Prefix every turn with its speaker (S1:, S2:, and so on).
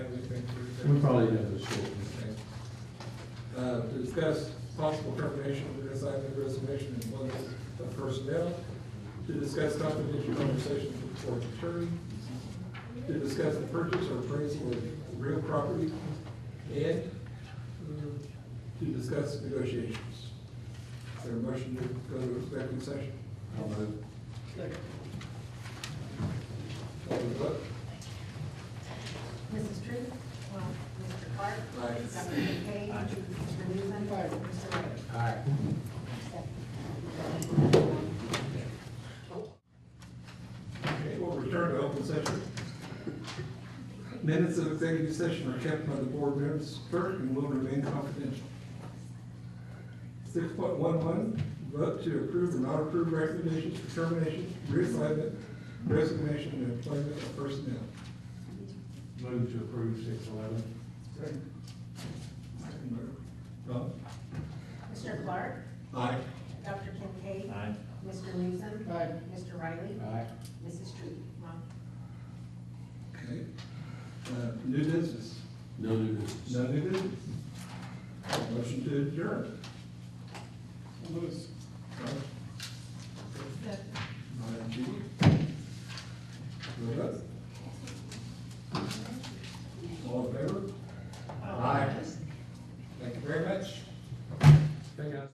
S1: We probably have a short meeting.
S2: Uh, to discuss possible termination of the assignment resignation and one of personnel, to discuss confidential conversations with court attorney, to discuss the purchase or appraisal of real property, and um, to discuss negotiations. Is there a motion to go to executive session?
S1: I'll move.
S2: Call the vote.
S3: Mrs. True? Mr. Clark?
S2: Aye.
S3: Dr. Kincaid? Mr. Newman? Mr. Ray?
S2: Okay, we'll return to open session. Minutes of executive session are kept by the board members, clerk, and will remain confidential. Six point one one, vote to approve or not approve recommendations for termination, reassignment, resignation, and employment of personnel.
S1: Move to approve six eleven.
S2: Second, Rob?
S3: Mr. Clark?
S2: Aye.
S3: Dr. Kincaid?
S4: Aye.
S3: Mr. Newsom? Mr. Riley?
S4: Aye.
S3: Mrs. True?
S2: Okay. Uh, new business?
S4: No new business.
S2: No new business. Motion to adjourn. Rob? All right, Judy? Vote.